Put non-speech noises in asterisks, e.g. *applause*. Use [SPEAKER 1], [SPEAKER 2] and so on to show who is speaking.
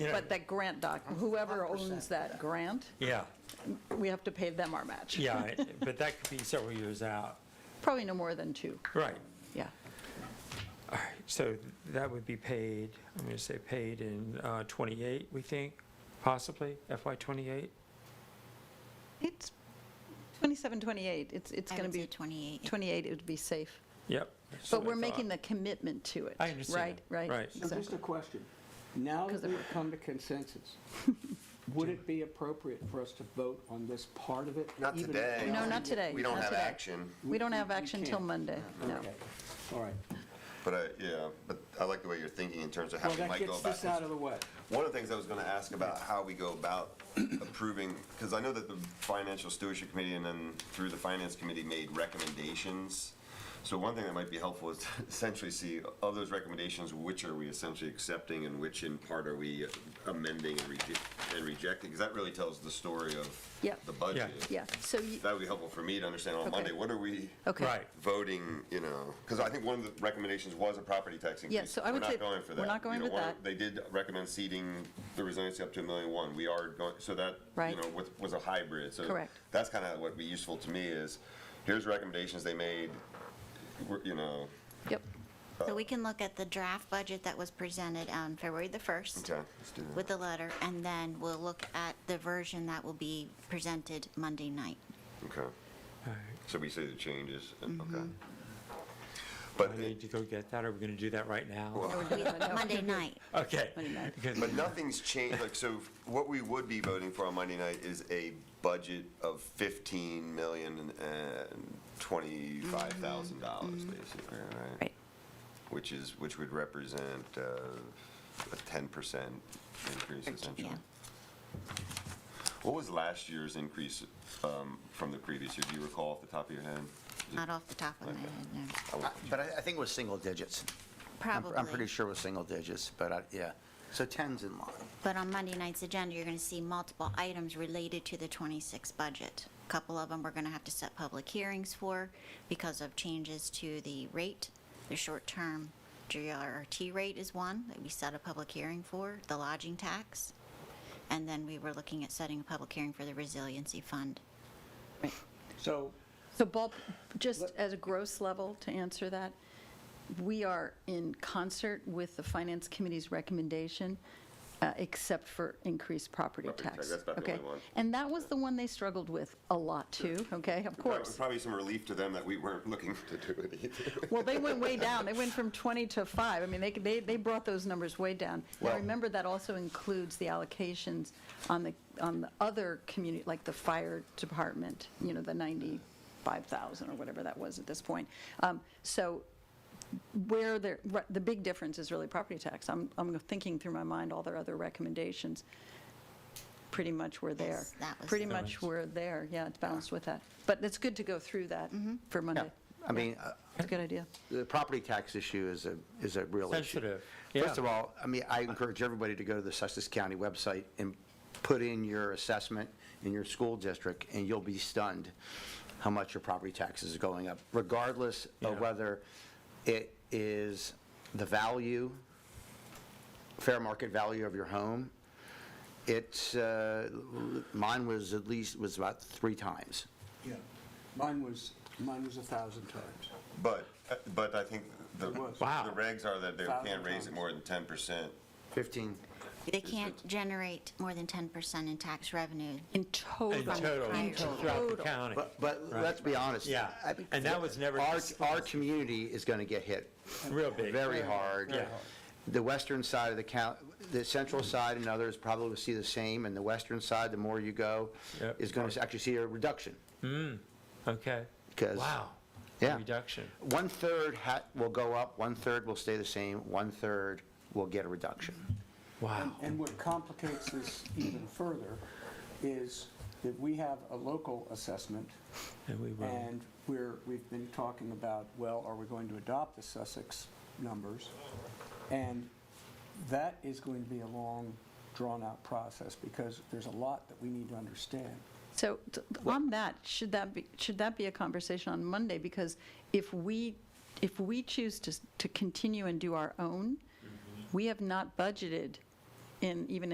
[SPEAKER 1] Yeah.
[SPEAKER 2] But that grant doc, whoever owns that grant,
[SPEAKER 1] *laughs* Yeah,
[SPEAKER 2] we have to pay them our match.
[SPEAKER 1] yeah, but that could be several years out.
[SPEAKER 2] Probably no more than two,
[SPEAKER 1] Right,
[SPEAKER 2] yeah.
[SPEAKER 1] all right, so that would be paid, I'm going to say paid in uh, 28, we think, possibly, FY 28?
[SPEAKER 2] It's 27, 28, it's, it's
[SPEAKER 3] I
[SPEAKER 2] going to
[SPEAKER 3] would
[SPEAKER 2] be
[SPEAKER 3] say 28.
[SPEAKER 2] 28, it would be safe.
[SPEAKER 1] Yep. that's
[SPEAKER 2] But
[SPEAKER 1] what I
[SPEAKER 2] we're making
[SPEAKER 1] thought.
[SPEAKER 2] the commitment to it.
[SPEAKER 1] I understand,
[SPEAKER 2] Right, right.
[SPEAKER 1] right.
[SPEAKER 4] So just a
[SPEAKER 2] exactly.
[SPEAKER 4] question. Now
[SPEAKER 2] Because
[SPEAKER 4] that
[SPEAKER 2] of
[SPEAKER 4] we've come to
[SPEAKER 2] *laughs*
[SPEAKER 4] consensus, would it be appropriate for us to vote on this part of it?
[SPEAKER 5] Not
[SPEAKER 4] even-
[SPEAKER 5] today.
[SPEAKER 2] No, not today.
[SPEAKER 5] We don't
[SPEAKER 2] not
[SPEAKER 5] have
[SPEAKER 2] today.
[SPEAKER 5] action,
[SPEAKER 2] We don't have
[SPEAKER 4] We
[SPEAKER 2] action till
[SPEAKER 4] can't.
[SPEAKER 2] Monday, no.
[SPEAKER 4] Okay, all right.
[SPEAKER 5] but I, yeah, but I like the way you're thinking in terms of how
[SPEAKER 4] Well,
[SPEAKER 5] we
[SPEAKER 4] that
[SPEAKER 5] might go
[SPEAKER 4] gets
[SPEAKER 5] about
[SPEAKER 4] this
[SPEAKER 5] this.
[SPEAKER 4] out of the way.
[SPEAKER 5] One of the things I was gonna ask about how we go about *coughs* approving, because I know that the Financial Stewardship Committee and then through the Finance Committee made recommendations. So one thing that might be helpful is *laughs* to essentially see of those recommendations, which are we essentially accepting and which in part are we amending and reje- and rejecting? Because that really tells the story of
[SPEAKER 2] Yep.
[SPEAKER 5] the budget.
[SPEAKER 2] Yeah, so, you-
[SPEAKER 5] That would be helpful for me to understand on
[SPEAKER 2] Okay.
[SPEAKER 5] Monday, what are we?
[SPEAKER 2] okay.
[SPEAKER 1] Right,
[SPEAKER 5] voting, you know, because I think one of the recommendations was a property tax increase.
[SPEAKER 2] so I would say
[SPEAKER 5] We're not going for
[SPEAKER 2] we're
[SPEAKER 5] that.
[SPEAKER 2] not going
[SPEAKER 5] You
[SPEAKER 2] with
[SPEAKER 5] know, one-
[SPEAKER 2] that.
[SPEAKER 5] They did recommend seeding the resiliency up to a million one. We are going, so that,
[SPEAKER 2] Right.
[SPEAKER 5] you know, was- was a hybrid. So
[SPEAKER 2] Correct.
[SPEAKER 5] That's kind of what would be useful to me is, here's recommendations they made, we're- you know,
[SPEAKER 2] Yep,
[SPEAKER 6] Uh,
[SPEAKER 3] So we can look at the draft budget that was presented on February the 1st
[SPEAKER 5] okay, let's do
[SPEAKER 3] with
[SPEAKER 5] that.
[SPEAKER 3] the letter, and then we'll look at the version that will be presented Monday
[SPEAKER 2] *laughs*
[SPEAKER 3] night.
[SPEAKER 5] Okay.
[SPEAKER 1] all right.
[SPEAKER 5] So we say the changes, and- okay.
[SPEAKER 1] I
[SPEAKER 2] Mm-hmm.
[SPEAKER 5] But,
[SPEAKER 1] need to go get that, are we going to do that right now?
[SPEAKER 5] Well-
[SPEAKER 3] We- Monday night.
[SPEAKER 1] Okay. because-
[SPEAKER 5] but nothing's changed, like, so what we would be voting for on Monday night is a budget of 15 million and 25,000 dollars, basically, right?
[SPEAKER 3] Right.
[SPEAKER 5] which is, which would represent uh, a 10% increase essentially.
[SPEAKER 3] Yeah.
[SPEAKER 5] What was last year's increase um, from the previous year? Do you recall off the top of your head? Is it-
[SPEAKER 3] Not off the top of my head, no.
[SPEAKER 6] Uh, But I, I think it was single digits. I'm-
[SPEAKER 3] Probably.
[SPEAKER 6] I'm pretty sure it was single digits, but I, yeah. So 10's in line.
[SPEAKER 3] But on Monday night's agenda, you're going to see multiple items related to the 26 budget. A Couple of them we're going to have to set public hearings for because of changes to the rate. The short-term GRT rate is one that we set a public hearing for, the lodging tax. And then we were looking at setting a public hearing for the resiliency fund.
[SPEAKER 4] So
[SPEAKER 2] so Bob, just as a gross level to answer that, we are in concert with the Finance Committee's recommendation, uh, except for increased property
[SPEAKER 5] Property tax,
[SPEAKER 2] tax.
[SPEAKER 5] that's about the
[SPEAKER 2] okay?
[SPEAKER 5] only one.
[SPEAKER 2] And that was the one they struggled with a lot too, okay, of
[SPEAKER 5] Prob-
[SPEAKER 2] course.
[SPEAKER 5] Probably some relief to them that we weren't looking to do it either.
[SPEAKER 2] Well, they went way down. They went from 20 to 5. I mean, they, they, they brought those numbers way down. Now,
[SPEAKER 5] Well-
[SPEAKER 2] remember, that also includes the allocations on the, on the other community, like the fire department, you know, the 95,000 or whatever that was at this point. Um, So where the, re- the big difference is really property tax. I'm, I'm thinking through my mind all their other recommendations. Pretty much we're there.
[SPEAKER 3] Yes, that was
[SPEAKER 2] Pretty
[SPEAKER 3] the-
[SPEAKER 2] much we're there, yeah, it's balanced with that. But it's good to go through that
[SPEAKER 3] Mm-hmm.
[SPEAKER 2] for
[SPEAKER 6] Yeah.
[SPEAKER 2] Monday.
[SPEAKER 6] I mean, uh,
[SPEAKER 2] It's a good idea.
[SPEAKER 6] the property tax issue is a, is a real issue.
[SPEAKER 1] Sensitive,
[SPEAKER 6] First
[SPEAKER 1] yeah.
[SPEAKER 6] of all, I mean, I encourage everybody to go to the Sussex County website and put in your assessment in your school district, and you'll be stunned how much your property taxes are going up, regardless
[SPEAKER 1] Yeah.
[SPEAKER 6] of whether it is the value, fair market value of your home. It's, uh, mine was at least, was about three times.
[SPEAKER 4] Yeah, mine was, mine was a 1,000 times.
[SPEAKER 5] But, but I think the, the
[SPEAKER 4] was.
[SPEAKER 1] Wow.
[SPEAKER 5] regs are that they can't
[SPEAKER 4] Thousand
[SPEAKER 5] raise
[SPEAKER 4] times.
[SPEAKER 5] it more than 10%.
[SPEAKER 6] 15.
[SPEAKER 3] They can't generate more than 10% in tax revenue.
[SPEAKER 2] In
[SPEAKER 1] In
[SPEAKER 2] total.
[SPEAKER 1] total,
[SPEAKER 3] In
[SPEAKER 1] throughout the
[SPEAKER 2] total.
[SPEAKER 1] county.
[SPEAKER 6] But, but let's be honest.
[SPEAKER 1] Yeah,
[SPEAKER 6] I mean,
[SPEAKER 1] and that was never
[SPEAKER 6] Our, our
[SPEAKER 1] discussed.
[SPEAKER 6] community is going to get hit
[SPEAKER 1] Real big.
[SPEAKER 6] very hard.
[SPEAKER 1] Yeah.
[SPEAKER 6] The western side of the count, the central side and others probably will see the same, and the western side, the more you go,
[SPEAKER 1] Yep.
[SPEAKER 6] is going to actually see a reduction.
[SPEAKER 1] Okay.
[SPEAKER 6] 'Cause-
[SPEAKER 1] Wow.
[SPEAKER 6] Yeah.
[SPEAKER 1] Reduction.
[SPEAKER 6] One-third ha- will go up, one-third will stay the same, one-third will get a reduction.
[SPEAKER 1] Wow.
[SPEAKER 4] And what complicates this even further is that we have a local assessment,
[SPEAKER 1] And we will.
[SPEAKER 4] and we're, we've been talking about, well, are we going to adopt the Sussex numbers? And that is going to be a long, drawn-out process, because there's a lot that we need to understand.
[SPEAKER 2] So t- on that, should that be, should that be a conversation on Monday? Because if we, if we choose
[SPEAKER 1] Mm-hmm.
[SPEAKER 2] to, s- to continue and do our own, we have not budgeted in, even